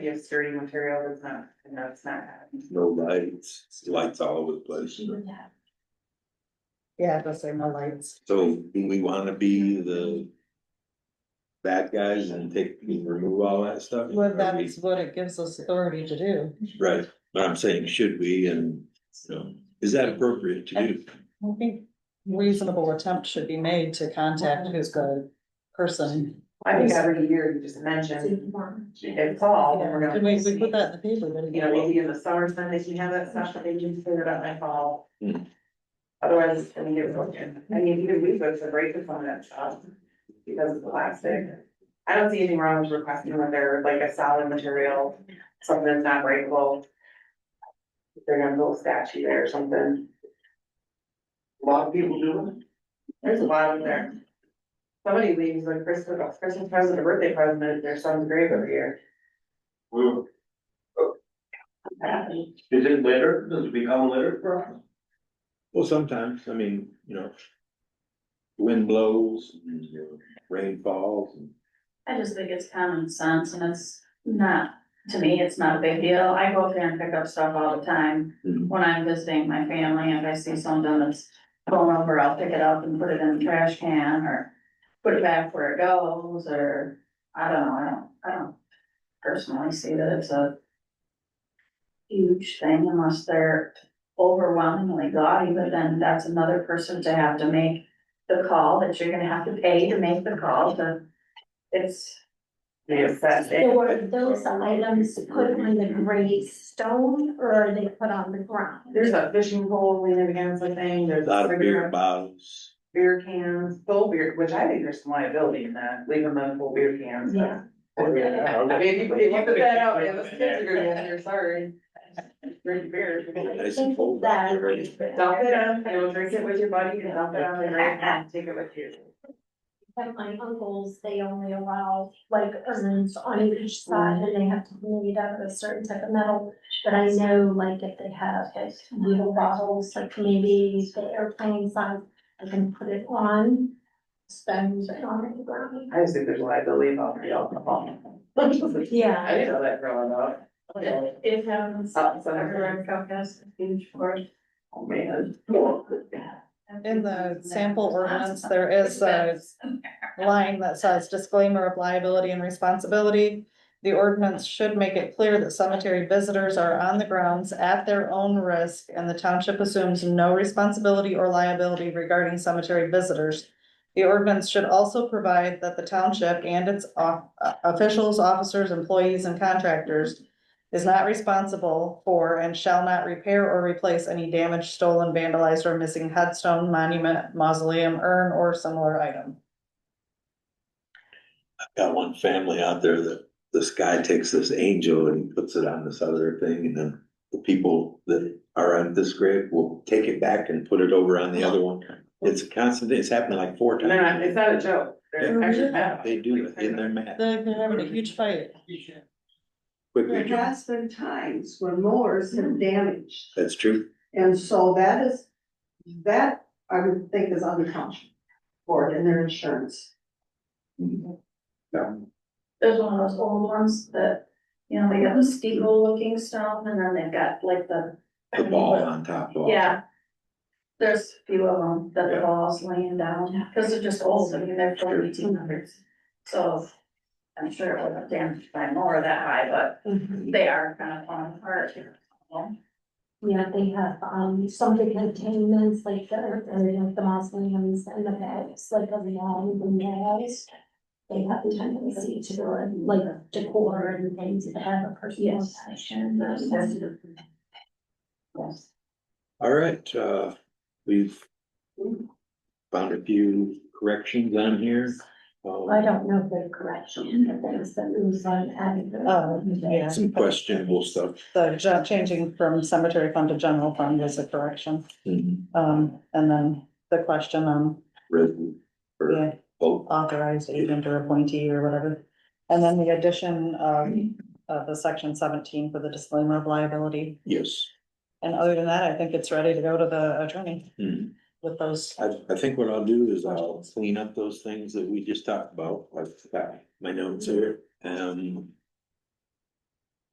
be a sturdy material that's not, and that's not. no lights, lights all over the place. Mm-hmm. Yeah, those are my lights. So do we wanna be the bad guys and take, and remove all that stuff? Well, Or we- that's what it gives us authority to do. Right, but I'm saying, should we, and, you know, is that appropriate to do? I think reasonable attempt should be made to contact who's the person. I think every year you just mentioned, it's fall, and we're gonna. Did we, we put that in the paper, but You know, maybe in the summer, Sunday, you have that session, they can figure it out in the fall. Hmm. Otherwise, I mean, it's broken, I mean, even we go to break the phone at shop because of the plastic. I don't see anything wrong with requesting when they're like a solid material, something that's not breakable. If They're gonna build a statue there or something, A lot of people do there's a lot of there. Somebody leaves like Christmas, Christmas present or birthday present at their son's grave every year. it. Well, Is it litter? Does it become litter for us? Well, sometimes, I mean, you know. Wind blows, and, you know, rain falls, and I just think it's common sense and it's not, to me, it's not a big deal. I go up there and pick up stuff all the time. Mm-hmm. Mhm. When I'm visiting my family and I see something that's blown over, I'll pick it up and put it in the trash can or put it back where it goes or, I don't know, I don't, I don't personally see that it's a huge thing unless they're overwhelmingly gaudy, but then that's another person to have to make the call that you're gonna have to pay to make the call to, it's They assess it. There were those items put on the gray stone or are they put on the ground? There's a fishing pole leaning against the thing, a there's a lot of beer cigarette, bottles. beer cans, full beer, which I think there's some liability in that, leaving them full beer cans. but- Yeah. I mean, if you, if you put that out, yeah, those kids are gonna be in there, sorry. Drink beer. Nice and cold out there, right? Dump it up, you know, drink it with your buddy, you can dump it on the ground and take it with you. At my uncle's, they only allow like urns on each side and they have to be made out of a certain type of metal. But I know like if they have like little bottles, like maybe the airplane size, I can put it on. Stones and on the ground. I just think there's liability about the alcohol. I Yeah. didn't know that growing up. It it happens, Oh, I've so- heard Comcast, huge for it. Oh, man. Mm-hmm. In the sample ordinance, there is a line that says disclaimer of liability and responsibility. The ordinance should make it clear that cemetery visitors are on the grounds at their own risk and the township assumes no responsibility or liability regarding cemetery visitors. The ordinance should also provide that the township and its off- uh, officials, officers, employees and contractors is not responsible for and shall not repair or replace any damaged, stolen, vandalized or missing headstone, monument, mausoleum, urn or similar item. Got one family out there that this guy takes this angel and he puts it on this other thing and then. The people that are on this grave will take it back and put it over on the other one. It's a constant, it's happened like four And they're not, times. it's not a joke, they're Yeah. actually mad. They do it in their mat They're they're having a huge fight. There quickly. has been times when mowers have damaged, That's true. and so that is, that I would think is on the township board and their insurance. There's one of those old ones that, you know, they got the steeple looking stone and then they've got like the. The ball on top of all. Yeah. There's a few of them that the balls laying down, cause they're just old, I mean, they're from eighteen hundreds, so. I'm sure it wasn't damaged by more that high, but Mm-hmm. they are kind of falling apart. Yeah, they have, um, some big containments, like the, or like the mausoleums and the bags, like the long memorials. They have the tendency to, go and, like, decor and things that have a personal Yes. passion. Um, Yes. All right, uh, we've. Found a few corrections on here. I Um, don't know if they're correct, but there's some loose on adding. Oh, yeah. Some questionable stuff. The ju- changing from cemetery fund to general fund is a correction. Mhm. Um, and then the question on, Written or yeah, vote. authorized agent or appointee or whatever. And then the addition of, of the section seventeen for the disclaimer of liability. Yes. And other than that, I think it's ready to go to the attorney Mhm. with those. I, I think what I'll do is I'll clean up those things that we just talked about, I've got my notes here, um.